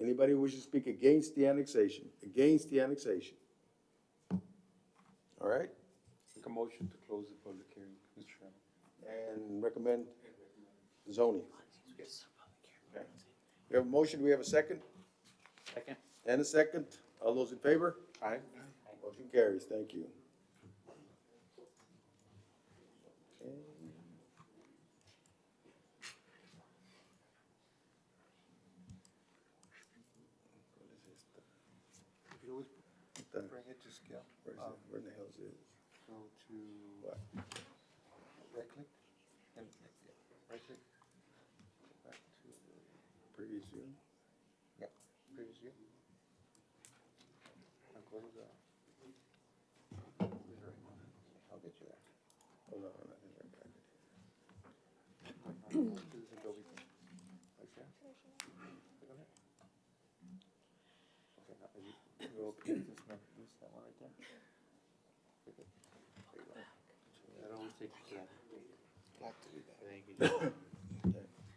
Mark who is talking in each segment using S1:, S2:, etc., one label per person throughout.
S1: Anybody who wishes to speak against the annexation, against the annexation? All right,
S2: Make a motion to close the public hearing, Mr. Chairman.
S1: and recommend zoning. We have a motion, we have a second?
S3: Second.
S1: And a second. All those in favor?
S2: Aye.
S1: Motion carries, thank you. Okay.
S2: If you always bring it to scale,
S1: Where is it?
S2: um,
S1: Where the hell is it?
S2: go to
S1: What?
S2: right click, and, right click. Back to,
S1: Pretty soon.
S2: yeah, previous view. And go to the. I'll get you there.
S1: Hold on, hold on, I think I got it.
S2: Do this Adobe thing. Right there. Click on it. Okay, now, if you, you open this, one, this, that one right there. Click it. There you go.
S3: That always takes you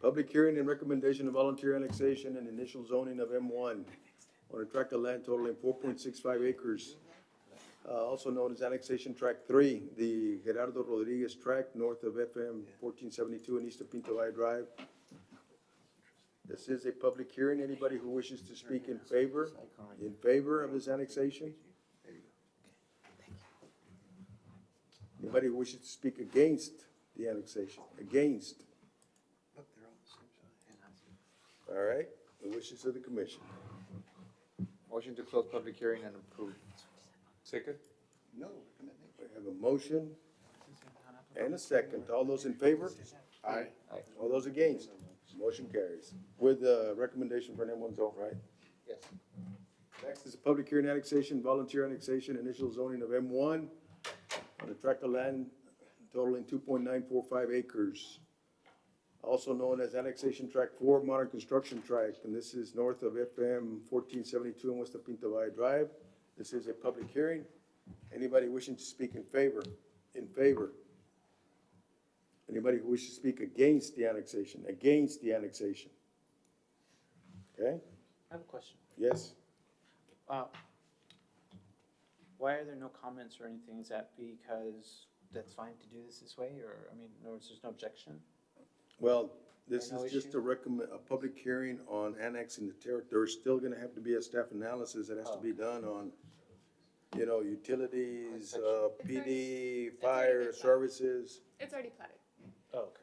S1: Public hearing and recommendation of volunteer annexation and initial zoning of M one on a tract of land totaling four point six five acres, uh, also known as annexation tract three, the Gerardo Rodriguez tract north of FM fourteen seventy-two and east of Pinto Valle Drive. This is a public hearing. Anybody who wishes to speak in favor, in favor of this annexation? Anybody who wishes to speak against the annexation, against?
S2: Look, they're all the same size.
S1: All right, the wishes of the commission.
S4: Motion to close public hearing and approve.
S2: Second?
S1: No. We have a motion and a second. All those in favor?
S2: Aye.
S1: All those against? Motion carries. With the recommendation for an M one zone, right?
S4: Yes.
S1: Next is a public hearing annexation, volunteer annexation, initial zoning of M one on a tract of land totaling two point nine four five acres. Also known as annexation tract four, modern construction tract, and this is north of FM fourteen seventy-two and west of Pinto Valle Drive. This is a public hearing. Anybody wishing to speak in favor, in favor? Anybody who wishes to speak against the annexation, against the annexation? Okay,
S3: I have a question.
S1: yes?
S3: Uh, Why are there no comments or anything? Is that because that's fine to do this this way, or, I mean, in other words, there's no objection?
S1: Well, this
S3: Or no
S1: is just
S3: issue?
S1: a recommend, a public hearing on annexing the territory. There's still gonna have to be a staff analysis that has to
S5: Oh.
S1: be done on, you know, utilities, uh, PD, fire services.
S5: It's already platted,
S3: Oh, okay.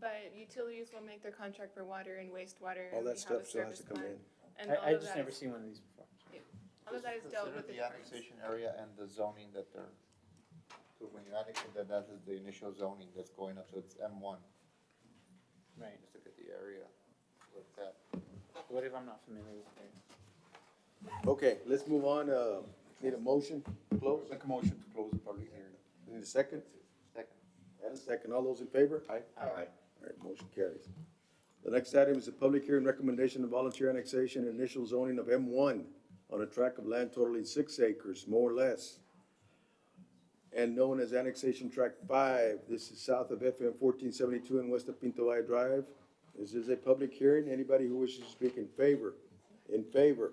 S5: but utilities will make their contract for water and wastewater.
S1: All
S5: and we
S1: that
S5: have
S1: stuff
S5: a
S1: still has to
S5: service
S1: come in.
S5: plan, And all
S3: I, I
S5: of
S3: just
S5: that
S3: never
S5: is-
S3: seen one of these before.
S5: All of that is dealt with. in
S4: Consider the
S5: parks.
S4: annexation area and the zoning that they're, so when you annex it, that that is the initial zoning that's going up, so it's M one.
S3: Right.
S4: Just look at the area with that.
S3: What if I'm not familiar with it?
S1: Okay, let's move on, uh, need a motion, close,
S2: Make a motion to close the public hearing.
S1: need a second?
S4: Second.
S1: And a second, all those in favor?
S2: Aye.
S1: Aye. All right, motion carries. The next item is a public hearing recommendation of volunteer annexation and initial zoning of M one on a tract of land totaling six acres, more or less, and known as annexation tract five. This is south of FM fourteen seventy-two and west of Pinto Valle Drive. This is a public hearing. Anybody who wishes to speak in favor, in favor?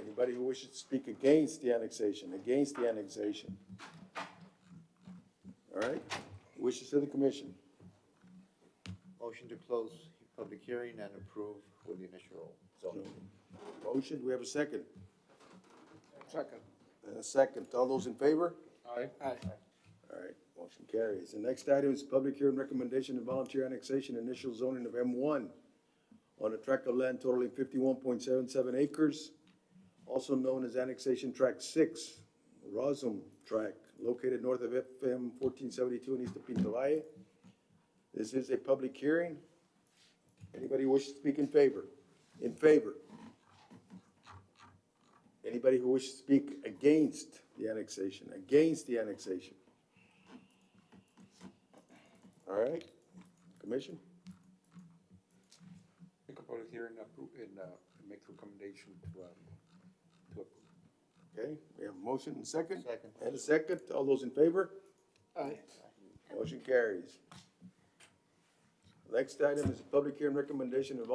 S1: Anybody who wishes to speak against the annexation, against the annexation? All right, wishes to the commission.
S4: Motion to close public hearing and approve with the initial zoning.
S1: Motion, do we have a second?
S2: Second.
S1: And a second, all those in favor?
S2: Aye. Aye.
S1: All right, motion carries. The next item is public hearing recommendation of volunteer annexation, initial zoning of M one on a tract of land totaling fifty-one point seven seven acres, also known as annexation tract six, Rosum tract, located north of FM fourteen seventy-two and east of Pinto Valle. This is a public hearing. Anybody wish to speak in favor? In favor? Anybody who wishes to speak against the annexation, against the annexation? All right, commission?
S2: Make a public hearing approve and, uh, make recommendation to, um, to approve.
S1: Okay, we have a motion and second?
S4: Second.
S1: And a second, all those in favor?
S2: Aye.
S1: Motion carries. Next item is a public hearing recommendation of